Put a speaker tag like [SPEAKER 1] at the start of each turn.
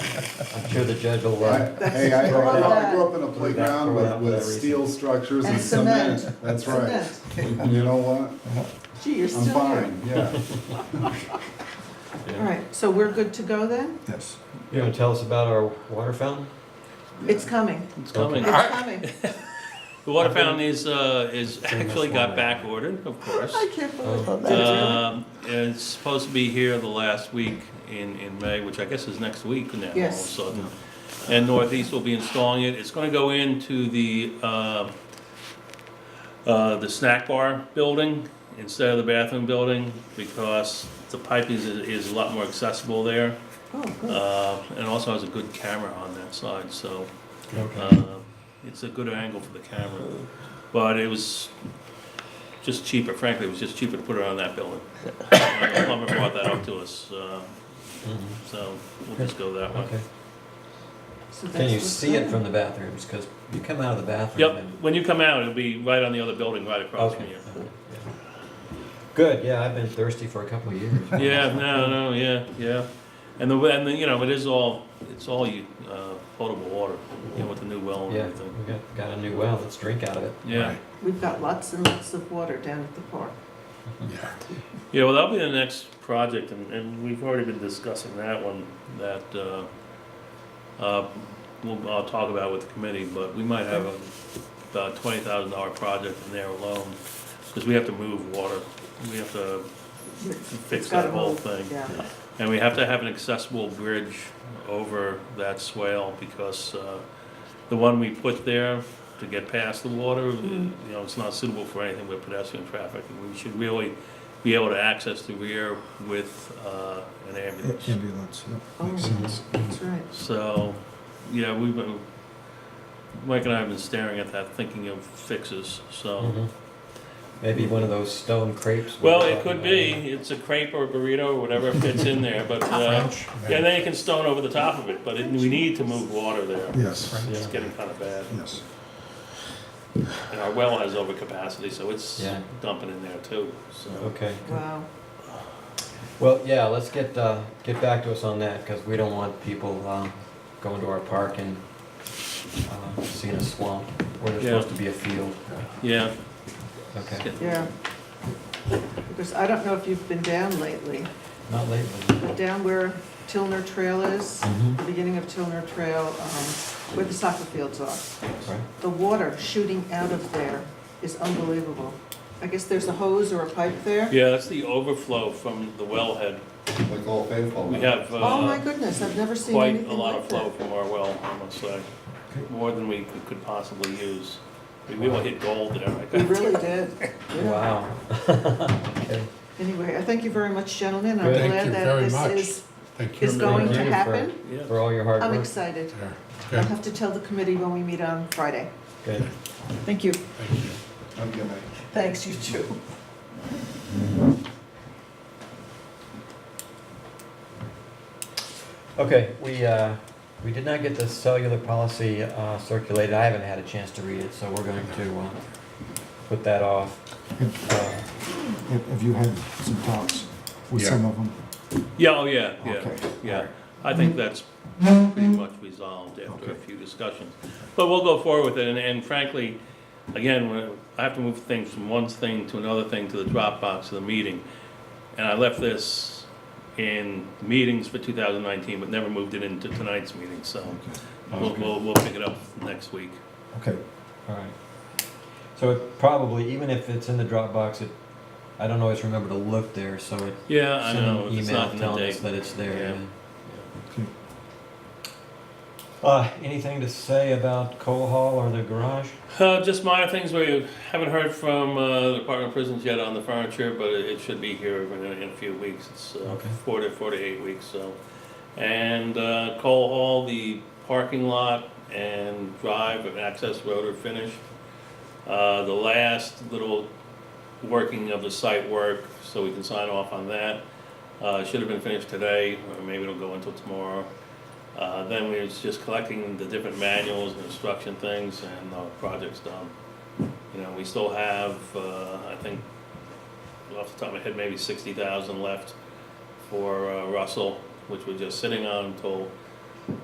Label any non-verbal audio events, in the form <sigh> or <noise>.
[SPEAKER 1] I'm sure the judge will, uh,
[SPEAKER 2] I- Hey, I, I
[SPEAKER 1] Throw it out.
[SPEAKER 2] grew up in a playground
[SPEAKER 1] Throw it
[SPEAKER 2] with,
[SPEAKER 1] out for
[SPEAKER 2] with
[SPEAKER 1] that reason.
[SPEAKER 2] steel structures
[SPEAKER 3] And
[SPEAKER 2] and cement,
[SPEAKER 3] cement.
[SPEAKER 2] that's right. You know what?
[SPEAKER 3] Gee, you're
[SPEAKER 2] I'm
[SPEAKER 3] still here.
[SPEAKER 2] fine, yeah.
[SPEAKER 3] All right, so we're good to go then?
[SPEAKER 4] Yes.
[SPEAKER 1] you gonna tell us about our water fountain?
[SPEAKER 3] It's coming,
[SPEAKER 4] It's
[SPEAKER 3] it's
[SPEAKER 5] coming.
[SPEAKER 3] coming.
[SPEAKER 5] The water fountain is, uh, is
[SPEAKER 1] in the
[SPEAKER 5] actually got
[SPEAKER 1] format.
[SPEAKER 5] back ordered, of course.
[SPEAKER 3] I can't believe
[SPEAKER 1] Oh.
[SPEAKER 3] it. Did it really?
[SPEAKER 5] Um, It's supposed to be here the last week in, in May, which I guess is next week now. all of a
[SPEAKER 3] Yes.
[SPEAKER 5] sudden. And Northeast will be installing it. It's gonna go into the, uh, uh, the snack bar building instead of the bathroom building because the piping is, is a lot more accessible there.
[SPEAKER 3] Oh, good.
[SPEAKER 5] Uh, and also has a good camera on that side, so,
[SPEAKER 1] Okay.
[SPEAKER 5] uh, it's a good angle for the camera. But it was just cheaper, frankly, it was just cheaper to put it on that building. Uh, The plumber brought that up to us, uh, so we'll just go that way.
[SPEAKER 1] Uh-huh. Okay.
[SPEAKER 3] So
[SPEAKER 1] Can
[SPEAKER 3] that's
[SPEAKER 1] you
[SPEAKER 3] what's
[SPEAKER 1] see it
[SPEAKER 3] coming.
[SPEAKER 1] from the bathrooms? Because you come out of the bathroom
[SPEAKER 5] Yep,
[SPEAKER 1] and.
[SPEAKER 5] when you come out, it'll be right on the other building, right across from
[SPEAKER 1] Okay.
[SPEAKER 5] you.
[SPEAKER 1] Good, yeah, I've been thirsty for a couple of years.
[SPEAKER 5] <laughs> Yeah, no, no, yeah, yeah. And the, and the, you know, it is all, it's all you, uh, potable water, you know, with the new well and
[SPEAKER 1] Yeah,
[SPEAKER 5] everything.
[SPEAKER 1] we got, got a new well, let's drink out of it.
[SPEAKER 5] Yeah.
[SPEAKER 3] We've got lots and lots of water down at the park.
[SPEAKER 4] Yeah.
[SPEAKER 5] Yeah, well, that'll be the next project, and, and we've already been discussing that one, that, uh, uh, we'll, I'll talk about with the committee, but we might have a, about twenty thousand dollar project in there alone, because we have to move water, we have to
[SPEAKER 3] It's
[SPEAKER 5] fix
[SPEAKER 3] got
[SPEAKER 5] that
[SPEAKER 3] a
[SPEAKER 5] whole thing.
[SPEAKER 3] Yeah,
[SPEAKER 5] And we have to have an accessible bridge over that swale because uh, the one we put there to get past the water, you
[SPEAKER 3] Mm-hmm.
[SPEAKER 5] know, it's not suitable for anything but pedestrian traffic. And We should really be able to access the rear with uh, an ambulance.
[SPEAKER 4] Ambulance, yeah, makes
[SPEAKER 3] Oh.
[SPEAKER 4] sense.
[SPEAKER 5] Mm-hmm.
[SPEAKER 3] that's right.
[SPEAKER 5] So, yeah, we've been, Mike and I have been staring at that, thinking of fixes, so.
[SPEAKER 1] Mhm. Maybe one of those stone crepes. we
[SPEAKER 5] Well,
[SPEAKER 1] were
[SPEAKER 5] it
[SPEAKER 1] talking
[SPEAKER 5] could
[SPEAKER 1] about.
[SPEAKER 5] be, it's a crepe or a burrito or whatever fits in there, but, uh, yeah, and then you can stone over the top of it, but it- we need to move water there.
[SPEAKER 4] Yes,
[SPEAKER 5] It's
[SPEAKER 1] Yeah.
[SPEAKER 5] getting kind of bad,
[SPEAKER 4] yes.
[SPEAKER 5] and our well has overcapacity, so it's
[SPEAKER 1] Yeah.
[SPEAKER 5] dumping in there too, so.
[SPEAKER 1] Okay,
[SPEAKER 3] Wow.
[SPEAKER 1] well, yeah, let's get, uh, get back to us on that, because we don't want people, um, going to our park and, uh, seeing a swamp, where there's
[SPEAKER 5] Yeah.
[SPEAKER 1] supposed to be a field.
[SPEAKER 5] Yeah,
[SPEAKER 1] Okay,
[SPEAKER 3] Yeah. Because I don't know if you've been down lately,
[SPEAKER 1] not lately.
[SPEAKER 3] but down where Tilner Trail is,
[SPEAKER 1] Mhm.
[SPEAKER 3] the beginning of Tilner Trail, um, where the soccer fields are,
[SPEAKER 1] Right.
[SPEAKER 3] the water shooting out of there is unbelievable. I guess there's a hose or a pipe there?
[SPEAKER 5] yeah, that's the overflow from the wellhead.
[SPEAKER 2] Like all faithful.
[SPEAKER 5] We
[SPEAKER 2] huh?
[SPEAKER 5] have,
[SPEAKER 3] Oh my
[SPEAKER 5] uh,
[SPEAKER 3] goodness, I've never seen
[SPEAKER 5] quite a
[SPEAKER 3] anything
[SPEAKER 5] lot of
[SPEAKER 3] like
[SPEAKER 5] flow
[SPEAKER 3] that.
[SPEAKER 5] from our well, I must say, more than we could possibly use. We really hit gold there, I
[SPEAKER 3] We
[SPEAKER 5] guess.
[SPEAKER 3] <laughs> really did. yeah.
[SPEAKER 1] Wow. Okay.
[SPEAKER 3] Anyway, I thank you very much, gentlemen. I'm
[SPEAKER 1] Good.
[SPEAKER 6] Thank
[SPEAKER 3] glad
[SPEAKER 6] you
[SPEAKER 3] that
[SPEAKER 6] very much.
[SPEAKER 3] this
[SPEAKER 6] Thank
[SPEAKER 3] is, is
[SPEAKER 6] you.
[SPEAKER 3] going
[SPEAKER 1] Thank
[SPEAKER 3] to
[SPEAKER 1] you for-
[SPEAKER 3] happen.
[SPEAKER 5] Yeah.
[SPEAKER 1] For all your hard
[SPEAKER 3] I'm
[SPEAKER 1] work.
[SPEAKER 3] excited.
[SPEAKER 6] Yeah.
[SPEAKER 3] I'll
[SPEAKER 6] Good,
[SPEAKER 3] have to tell the committee when we meet on Friday.
[SPEAKER 1] Good.
[SPEAKER 3] Thank you.
[SPEAKER 6] thank you.
[SPEAKER 2] Have a good night.
[SPEAKER 3] Thanks, you too.
[SPEAKER 1] Okay, we, uh, we did not get the cellular policy uh, circulated. I haven't had a chance to read it, so we're going to uh, put that off. Uh,
[SPEAKER 4] Have have you had some talks with
[SPEAKER 6] Yeah.
[SPEAKER 4] some of them?
[SPEAKER 5] Yeah, oh, yeah, yeah,
[SPEAKER 4] Okay.
[SPEAKER 5] yeah. I think that's pretty much resolved after a few discussions. But we'll go forward with it, and- and frankly, again, when- I have to move things from one thing to another thing to the Dropbox of the meeting. And I left this in meetings for 2019, but never moved it into tonight's meeting, so we'll, we'll, we'll pick it up next week.
[SPEAKER 4] Okay,
[SPEAKER 1] All right. So it probably, even if it's in the Dropbox, it, I don't always remember to look there, so it,
[SPEAKER 5] Yeah, I
[SPEAKER 1] send
[SPEAKER 5] know,
[SPEAKER 1] an
[SPEAKER 5] if it's
[SPEAKER 1] email
[SPEAKER 5] not in the
[SPEAKER 1] telling us
[SPEAKER 5] date.
[SPEAKER 1] that it's there.
[SPEAKER 5] Yeah.
[SPEAKER 1] yeah.
[SPEAKER 4] okay.
[SPEAKER 1] Uh, anything to say about Cole Hall or the garage?
[SPEAKER 5] Uh, just minor things where you haven't heard from, uh, the Department of Prisons yet on the furniture, but it, it should be here in, a- in a few weeks. It's, uh,
[SPEAKER 1] Okay.
[SPEAKER 5] four to, four to eight weeks, so. And, uh, Cole Hall, the parking lot and drive and access road are finished. Uh, the last little working of the site work, so we can sign off on that. Uh, should have been finished today, or maybe it'll go until tomorrow. Uh, then we was just collecting the different manuals and instruction things and the project's done. You know, we still have, uh, I think, off the top of my head, maybe sixty thousand left for, uh, Russell, which we're just sitting on until